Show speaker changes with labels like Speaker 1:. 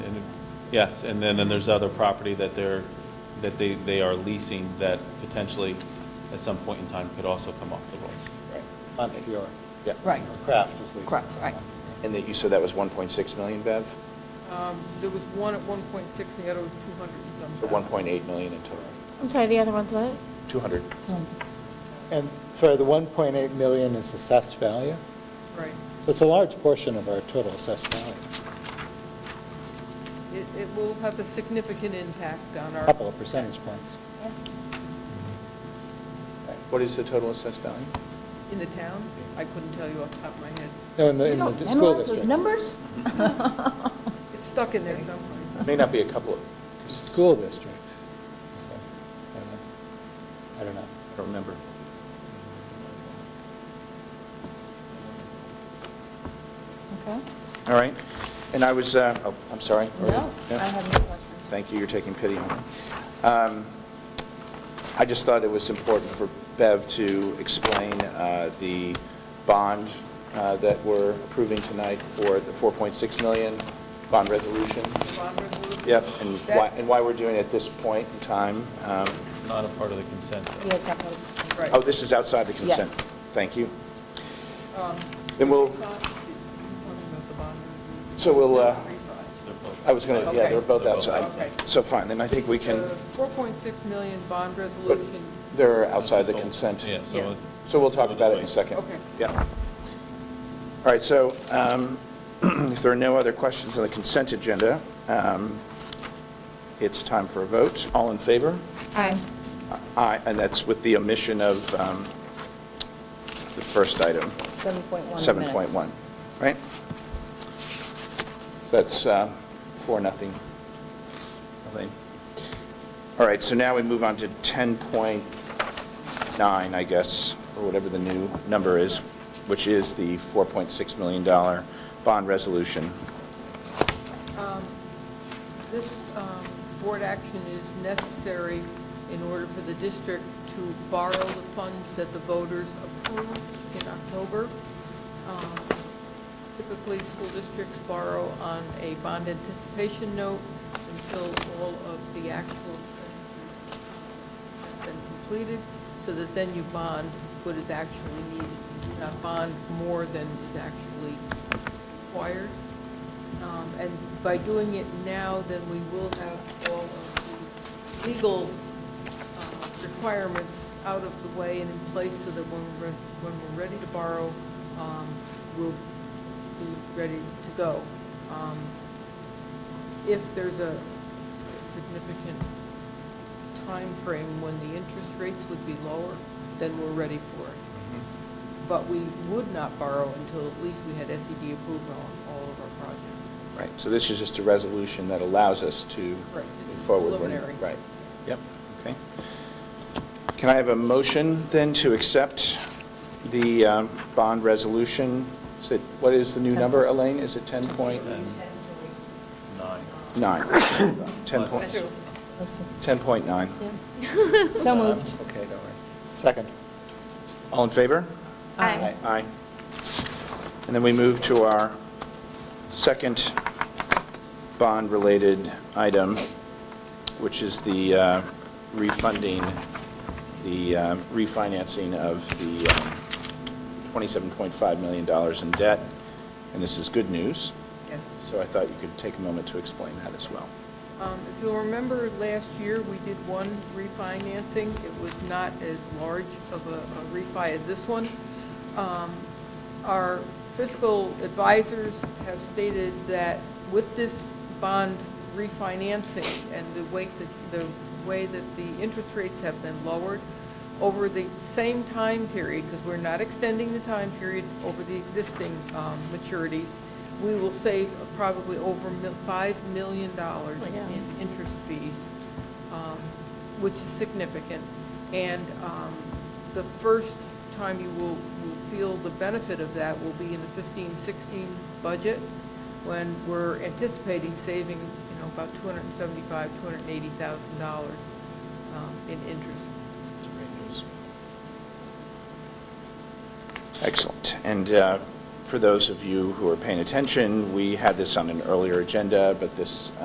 Speaker 1: Yes, and then, and there's other property that they're, that they, they are leasing that potentially at some point in time could also come off the rolls.
Speaker 2: Montefiore.
Speaker 3: Yeah.
Speaker 4: Right,
Speaker 2: Kraft is leasing.
Speaker 4: correct, right.
Speaker 3: And that, you said that was 1.6 million, Bev?
Speaker 5: Um, There was one at 1.6, and the other was 200 and some.
Speaker 3: Or 1.8 million in total?
Speaker 6: I'm sorry, the other one's what?
Speaker 3: 200.
Speaker 2: And sorry, the 1.8 million is assessed value?
Speaker 5: Right.
Speaker 2: So it's a large portion of our total assessed value,
Speaker 5: It, it will have a significant impact on
Speaker 2: a
Speaker 5: our.
Speaker 2: couple of percentage points.
Speaker 3: What is the total assessed value?
Speaker 5: In the town? I couldn't tell you off the top of my head.
Speaker 2: No, in the,
Speaker 4: You
Speaker 2: in the
Speaker 4: don't
Speaker 2: d- school
Speaker 4: memorize those
Speaker 2: district.
Speaker 4: numbers?
Speaker 5: It's stuck in there somewhere.
Speaker 3: May not be a couple of, 'cause it's-
Speaker 2: School district. So, I don't know. I don't know.
Speaker 1: I don't remember.
Speaker 4: Okay.
Speaker 3: all right. And I was, uh, oh, I'm sorry.
Speaker 4: No, I
Speaker 3: Yeah.
Speaker 4: have no questions.
Speaker 3: Thank you, you're taking pity on me. Um, I just thought it was important for Bev to explain uh, the bond uh, that we're approving tonight for the 4.6 million bond resolution.
Speaker 5: Bond resolution?
Speaker 3: Yep, and why, and why we're doing it at this point in time. Um,
Speaker 1: Not a part of the consent. though.
Speaker 4: Yeah, it's up there.
Speaker 5: Right.
Speaker 3: Oh, this is outside the consent.
Speaker 4: Yes.
Speaker 3: Thank you.
Speaker 5: Um,
Speaker 3: Then we'll,
Speaker 5: Talking about the bond resolution.
Speaker 3: so we'll, uh,
Speaker 1: They're both-
Speaker 3: I was going to, yeah, they're
Speaker 5: Okay.
Speaker 3: both outside.
Speaker 5: Okay.
Speaker 3: So fine, then I think we can,
Speaker 5: The 4.6 million bond resolution,
Speaker 3: they're outside the consent.
Speaker 1: Yeah,
Speaker 5: Yeah.
Speaker 1: so,
Speaker 3: So we'll talk about it in a second.
Speaker 5: Okay.
Speaker 3: Yeah. All right, so um, if there are no other questions on the consent agenda, um, it's time for a vote. All in favor?
Speaker 6: Aye.
Speaker 3: Aye, and that's with the omission of um, the first item,
Speaker 4: 7.1 minutes.
Speaker 3: 7.1, right? So that's uh, four, nothing. Nothing. All right, so now we move on to 10.9, I guess, or whatever the new number is, which is the $4.6 million bond resolution.
Speaker 5: this um, board action is necessary in order for the district to borrow the funds that the voters approved in October. Um, Typically, school districts borrow on a bond anticipation note until all of the actual expenditures have been completed, so that then you bond what is actually needed. You do not bond more than is actually required. Um, And by doing it now, then we will have all of the legal uh, requirements out of the way and in place so that when we're, when we're ready to borrow, um, we'll be ready to go. Um, If there's a significant time frame when the interest rates would be lower, then we're ready for it but we would not borrow until at least we had SED approval on all of our projects.
Speaker 3: Right, so this is just a resolution that allows us to move
Speaker 5: Right, this is
Speaker 3: forward. when-
Speaker 5: preliminary.
Speaker 3: Right, yep, okay. Can I have a motion then to accept the um, bond resolution? Is it, what is the new number, Elaine? Is it 10.9?
Speaker 1: nine.
Speaker 3: 10 point- 10.9.
Speaker 4: So moved.
Speaker 3: Okay, don't worry.
Speaker 2: Second.
Speaker 3: All in favor?
Speaker 6: Aye.
Speaker 3: Aye. And then we move to our second bond-related item, which is the uh, refunding, the uh, refinancing of the um, $27.5 million in debt. And this is good news,
Speaker 5: Yes.
Speaker 3: so I thought you could take a moment to explain that as well.
Speaker 5: Um, If you'll remember, last year, we did one refinancing. It was not as large of a a refi as this one. Um, Our fiscal advisors have stated that with this bond refinancing and the way that, the way that the interest rates have been lowered, over the same time period, because we're not extending the time period over the existing um, maturities, we will save probably over mil- $5 million in interest fees, um, which is significant. And um, the first time you will will feel the benefit of that will be in the 15-16 budget, when we're anticipating saving, you know, about $275,000, $280,000 um, in interest.
Speaker 3: Excellent. And uh, for those of you who are paying attention, we had this on an earlier agenda, but this